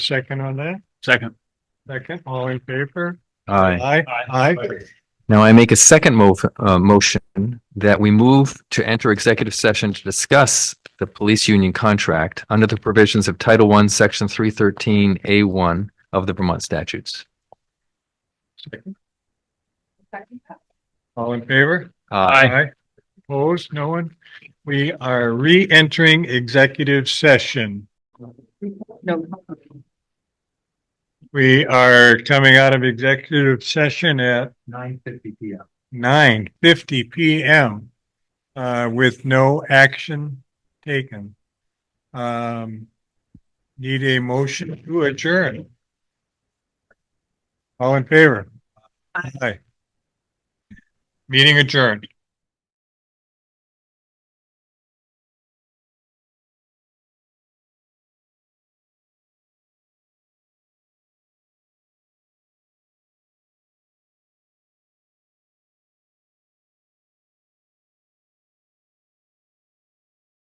Second on that? Second. Second, all in favor? Aye. Aye. Aye. Now I make a second move, uh, motion that we move to enter executive session to discuss the police union contract under the provisions of Title One, Section three thirteen A one of the Vermont statutes. All in favor? Aye. Opposed? No one? We are re-entering executive session. No. We are coming out of executive session at Nine fifty P M. nine fifty PM uh, with no action taken. Um, need a motion to adjourn. All in favor? Aye. Meeting adjourned.